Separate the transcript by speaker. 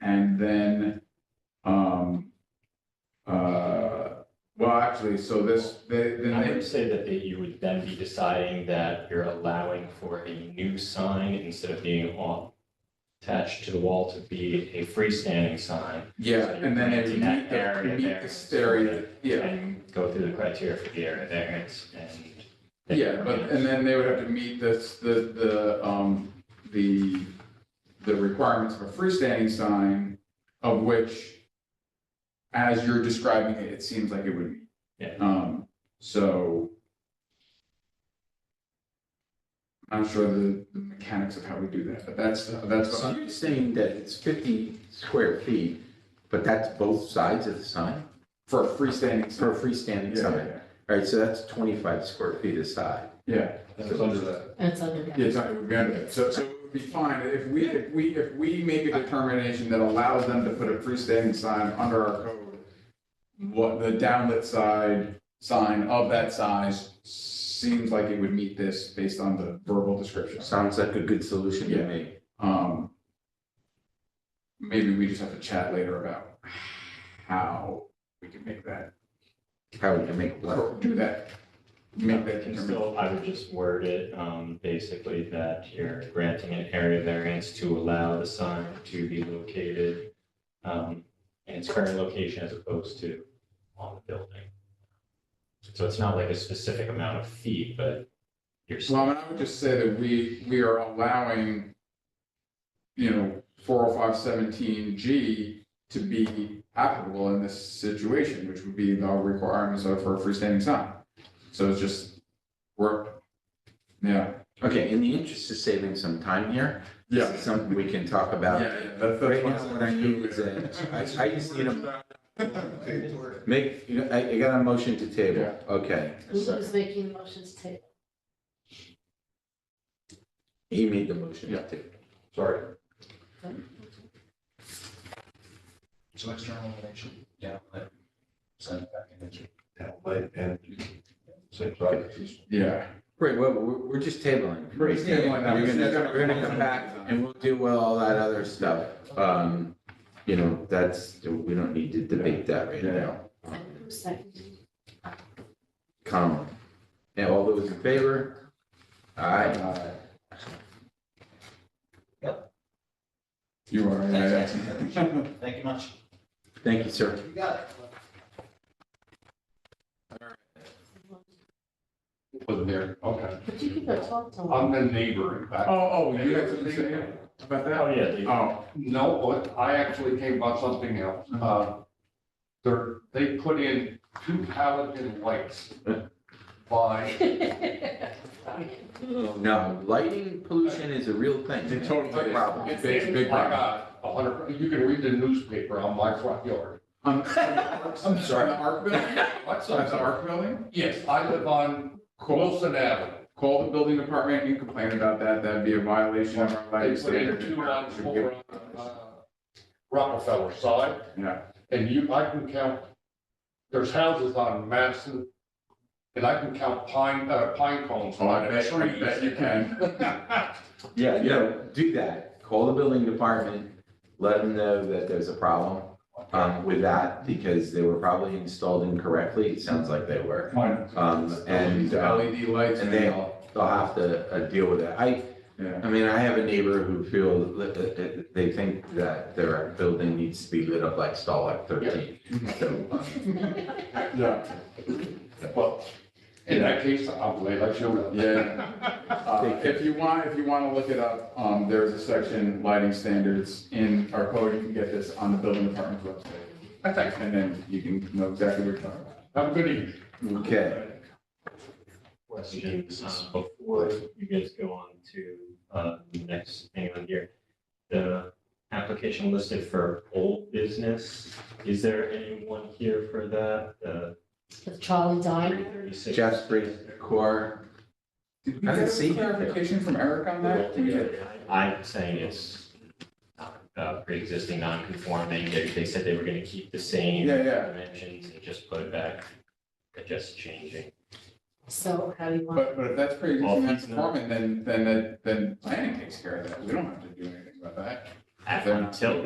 Speaker 1: And then, um, uh, well, actually, so this, they, then
Speaker 2: I
Speaker 1: they,
Speaker 2: would say that they- you would then be deciding that you're allowing for a new sign instead of being all attached to the wall to be a freestanding sign
Speaker 1: yeah, and then they
Speaker 2: In that
Speaker 1: meet the,
Speaker 2: area
Speaker 1: meet
Speaker 2: there.
Speaker 1: the stereo, yeah.
Speaker 2: and go through the criteria for the area variance and.
Speaker 1: Yeah, but, and then they would have to meet this, the, the, um, the, the requirements of a freestanding sign, of which, as you're describing it, it seems like it would. meet.
Speaker 2: Yeah.
Speaker 1: Um, so. I'm sure the the mechanics of how we do that, but that's, that's what
Speaker 3: So
Speaker 1: I'm-
Speaker 3: you're saying that it's fifty square feet, but that's both sides of the sign,
Speaker 1: for a freestanding sign.
Speaker 3: for a freestanding
Speaker 1: Yeah,
Speaker 3: sign?
Speaker 1: yeah,
Speaker 3: All right, so that's twenty-five square feet aside.
Speaker 1: yeah.
Speaker 4: That's under that.
Speaker 5: That's under that.
Speaker 1: Yeah, sorry, we got it. So, so it would be fine, if we, if we, if we make a determination that allows them to put a freestanding sign under our code, what, the downlit side, sign of that size seems like it would meet this based on the verbal description.
Speaker 3: Sounds like a good solution to
Speaker 1: Yeah.
Speaker 3: me.
Speaker 1: Um, maybe we just have to chat later about how we can make that,
Speaker 3: How would you make one?
Speaker 1: do that. Make that
Speaker 2: Can
Speaker 1: determination.
Speaker 2: still, I would just word it, um, basically that you're granting an area variance to allow the sign to be located, um, in its current location as opposed to on the building. So it's not like a specific amount of feet, but you're.
Speaker 1: Well, I mean, I would just say that we, we are allowing, you know, four oh five seventeen G to be applicable in this situation, which would be the requirements of for a freestanding sign. So it's just, we're, yeah.
Speaker 3: Okay, in the interest of saving some time here, this is something we can talk
Speaker 1: Yeah,
Speaker 3: about.
Speaker 1: yeah, that's, that's
Speaker 3: Right
Speaker 1: what
Speaker 3: now,
Speaker 1: I'm
Speaker 3: what I
Speaker 1: saying.
Speaker 3: need is a- I- I just need Make, you- I, I got a motion to table,
Speaker 1: Yeah.
Speaker 3: okay.
Speaker 5: Who's making the motions to?
Speaker 3: He made the motion
Speaker 1: Yeah.
Speaker 3: to table.
Speaker 2: Sorry.
Speaker 4: So external elevation. Yeah. but Send it back in. That way, and. Same properties.
Speaker 1: Yeah.
Speaker 3: Right, well, we're, we're just tabling.
Speaker 1: We're just tabling that.
Speaker 3: We're gonna, we're gonna come back and we'll do all that other stuff. Um, you know, that's, we don't need to debate that right now.
Speaker 5: And who's seconding?
Speaker 3: Colin. Now, all those in favor? Aye.
Speaker 1: Uh, You are, yeah, yeah.
Speaker 4: Thank you much.
Speaker 3: Thank you, sir.
Speaker 4: You got it.
Speaker 6: Wasn't there, okay.
Speaker 5: But you can go talk to them.
Speaker 6: I'm the neighbor, in fact.
Speaker 1: Oh, oh, you got something to say about
Speaker 2: Oh,
Speaker 1: that?
Speaker 2: yeah, they-
Speaker 1: Oh,
Speaker 6: No, but I actually came about something else.
Speaker 1: Mm-hmm.
Speaker 6: Uh, They're, they put in two halogen lights by,
Speaker 3: No, lighting pollution is a real thing.
Speaker 1: It totally
Speaker 3: It's a
Speaker 1: is.
Speaker 3: problem.
Speaker 1: It's a
Speaker 6: I
Speaker 1: big problem.
Speaker 6: got a hundred, you can read the newspaper on my front yard.
Speaker 1: On- I'm sorry, the ARC building?
Speaker 6: What's
Speaker 1: That's the
Speaker 6: that?
Speaker 1: ARC building?
Speaker 6: Yes, I live on
Speaker 1: Call,
Speaker 6: Wilson Avenue.
Speaker 1: call the building department and complain about that, that'd be a violation of our
Speaker 6: They put in
Speaker 1: legislation.
Speaker 6: two on, four on, uh, Rockefeller side.
Speaker 1: Yeah,
Speaker 6: And you, I can count, there's houses on Madison, and I can count pine, uh, pine cones
Speaker 1: oh,
Speaker 6: on
Speaker 1: I
Speaker 6: it.
Speaker 1: bet, I bet you can.
Speaker 3: Yeah, no, do that. Call the building department, let them know that there's a problem um, with that because they were probably installed incorrectly. It sounds like they were.
Speaker 1: Fine.
Speaker 3: Um, and, uh,
Speaker 1: LED E lights.
Speaker 3: And they'll, they'll have to uh, deal with that. I,
Speaker 1: Yeah,
Speaker 3: I mean, I have a neighbor who feel, that- that- that they think that their building needs to be lit up like Starlight thirteen. So, um,
Speaker 1: yeah,
Speaker 6: Well, in that case, I'm glad I showed up.
Speaker 1: yeah. Uh, If you want, if you want to look it up, um, there's a section, lighting standards in our code, you can get this on the building department's website.
Speaker 6: I think,
Speaker 1: And then you can know exactly what you're talking about.
Speaker 6: have a good evening.
Speaker 3: okay,
Speaker 2: questions uh, before you guys go on to uh, the next thing on here. The application listed for old business, is there anyone here for that? The
Speaker 5: With Charlie Diner.
Speaker 2: 36?
Speaker 3: Jeffrey Core,
Speaker 1: Did we
Speaker 3: I
Speaker 1: get
Speaker 3: didn't
Speaker 1: a
Speaker 3: see-
Speaker 1: clarification from Eric on that?
Speaker 2: I'm saying it's not, uh, pre-existing non-conforming. They they said they were going to keep the same
Speaker 1: Yeah, yeah.
Speaker 2: dimensions and just put it back, but just changing.
Speaker 5: So how do you want?
Speaker 1: But, but if that's pretty
Speaker 2: All
Speaker 1: existing
Speaker 2: fees now.
Speaker 1: non-conforming, then, then, that- then planning takes care of that. We don't have to do anything about that.
Speaker 2: Until